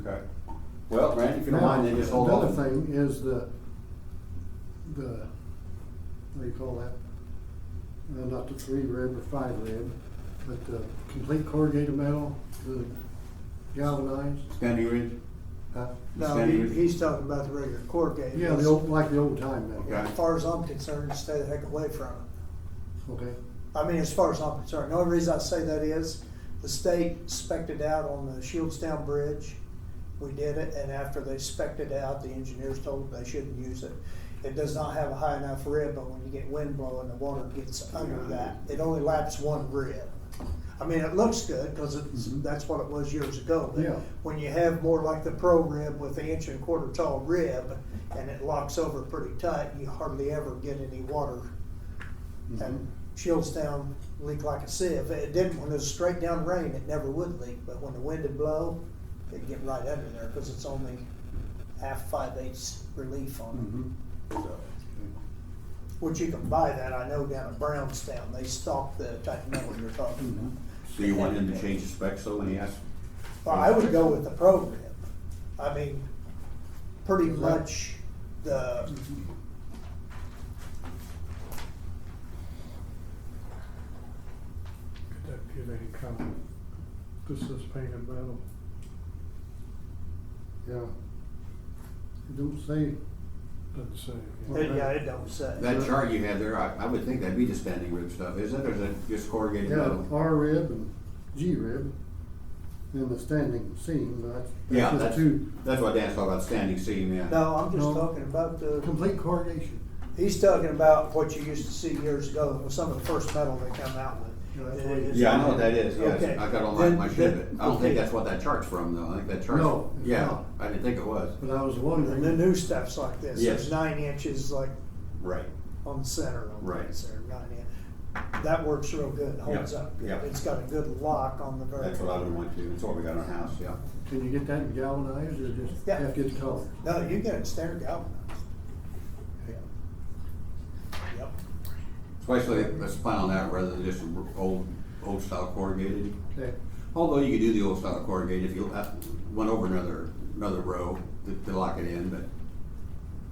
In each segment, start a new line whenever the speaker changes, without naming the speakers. Okay. Well, Randy, if you don't
Now,
mind, then just hold on.
Another thing is the, the, what do you call that? Uh, Not the three rib or five rib, but the complete corrugated metal, the galvanized.
Standing Ridge?
uh,
No,
Standing
he,
Ridge?
he's talking about the regular corrugated.
Yeah, the old, like the old time metal,
Okay.
As far as I'm concerned, stay the heck away from it.
okay?
I mean, as far as I'm concerned, the only reason I say that is the state spec'd it out on the Shieldstown Bridge. We did it, and after they spec'd it out, the engineers told them they shouldn't use it. It does not have a high enough rib, but when you get wind blowing, the water gets under that. It only laps one rib. I mean, it looks good because it's, that's what it was years ago. but
Yeah.
When you have more like the pro rib with the inch and a quarter tall rib and it locks over pretty tight, you hardly ever get any water
Mm-hmm.
and shields down leak like a sieve. It didn't when it was straight down rain, it never would leak, but when the wind would blow, it'd get right under there because it's only half five eighths relief on
Mm-hmm.
Mhm.
So,
it. Which you can buy that, I know down at Brownstown, they stock the type of metal you're talking about.
so you want him to change the specs though when he asks?
Well, I would go with the program. I mean, pretty much the.
Could that give any comment? This is painted metal.
Yeah. It Don't say,
Doesn't say.
Okay.
Yeah, it don't say.
That chart you had there, I, I would think that'd be the standing rib stuff, isn't it, or is it just corrugated
yeah,
metal?
R rib and G rib, and the standing seam, that's,
Yeah,
that's just
that's,
two,
that's what Dan's talking about, standing seam, yeah.
No, I'm just
No.
talking about the,
complete corrugation.
he's talking about what you used to see years ago, with some of the first metal they come out
Yeah,
with.
that's
It
what he-
is-
Yeah, I know what that is,
Okay.
yes, I got all mine in my
Then-
shed,
then-
but I don't think that's what that chart's from though, I think that chart's.
No, it's
Yeah,
not.
I didn't think it was.
But I was
And the
wondering,
new stuff's like this,
Yes.
there's nine inches like
Right.
on the center on
Right.
the center, nine inch. That works real good, holds
Yeah,
up
yeah.
good, it's got a good lock on the very.
That's what I would want to, that's what we got in our house, yeah.
can you get that galvanized or just
Yeah.
have to get the color?
No, you get it standard galvanized. Yeah. Yep.
Especially, let's plan on that rather than just old, old style corrugated.
Okay,
Although you could do the old style corrugated if you uh, went over another, another row to, to lock it in, but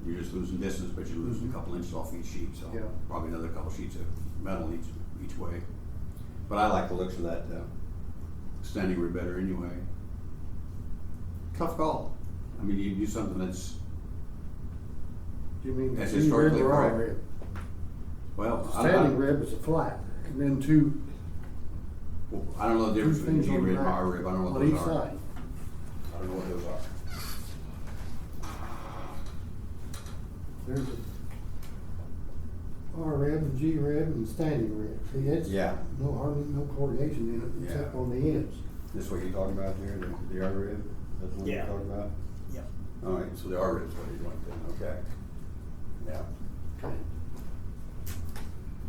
you're just losing distance, but you're losing a couple inches off each sheet, so
Yeah.
probably another couple sheets of metal each, each way. But I like the looks of that, uh, standing rib better anyway. Tough call. I mean, you do something that's,
do you mean
That's
G rib
historically
or R
correct.
rib?
well, I, I,
Standing rib is a flat, and then two,
I don't know the
two
difference between
things
G
on the
rib and
back,
R rib, I don't know what
on
those
each
are.
side.
I don't know what those are.
There's a R rib and G rib and standing rib, see, it's
Yeah.
no hardly, no corrugation in it, except
Yeah.
on the ends.
This what you're talking about there, the, the R rib? That's what you're
Yeah.
talking about?
Yep.
All right, so the R rib's what you want then, okay. Yeah.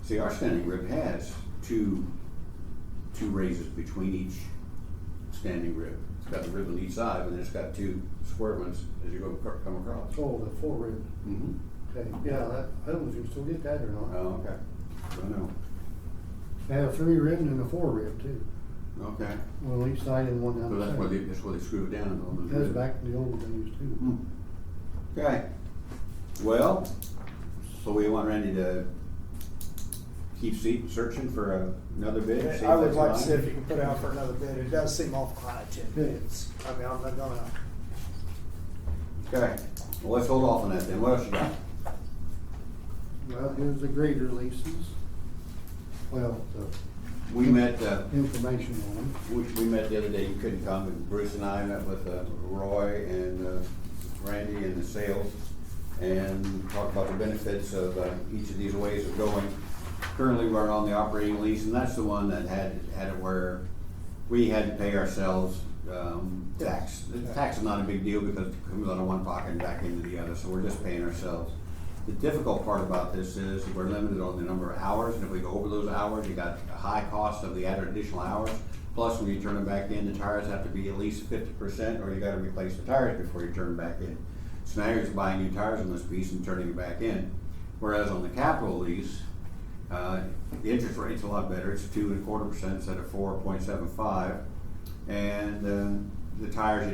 See, our standing rib has two, two raises between each standing rib. It's got the rib on each side, and then it's got two square ones as you go, acro- come across.
Oh, the four rib,
Mm-hmm.
okay, yeah, that, I don't know if you can still get that or
Oh,
not.
okay. I know.
They have a three rib and a four rib too,
Okay.
one on each side and one
So
down the
that's where they,
center.
that's where they screw it down on the
That's
rib.
back to the old days too.
Hmm. Okay, well, so we want Randy to keep se- searching for a- another bid? see if
I would
that's
like to
mine.
see if you can put out for another bid, it does seem awful high, ten
Yeah.
bids, I mean, I'm not gonna,
Okay, well, let's hold off on that then, what else you got?
Well, here's the grader leases. Well,
We met, uh,
the information on them.
we, we met the other day, you couldn't come, and Bruce and I met with, uh, Roy and, uh, Randy and the sales, and talked about the benefits of, uh, each of these ways of going. Currently, we're on the operating lease, and that's the one that had, had it where we had to pay ourselves, um, tax. The tax is not a big deal because it comes out of one pocket and back into the other, so we're just paying ourselves. The difficult part about this is we're limited on the number of hours, and if we go over those hours, you got a high cost of the added additional hours. Plus, when you turn them back in, the tires have to be at least fifty percent, or you gotta replace the tires before you turn them back in. So now you're just buying new tires on this piece and turning it back in. Whereas on the capital lease, uh, the interest rate's a lot better, it's two and a quarter percent instead of four point seven five. And, uh, the tires, you don't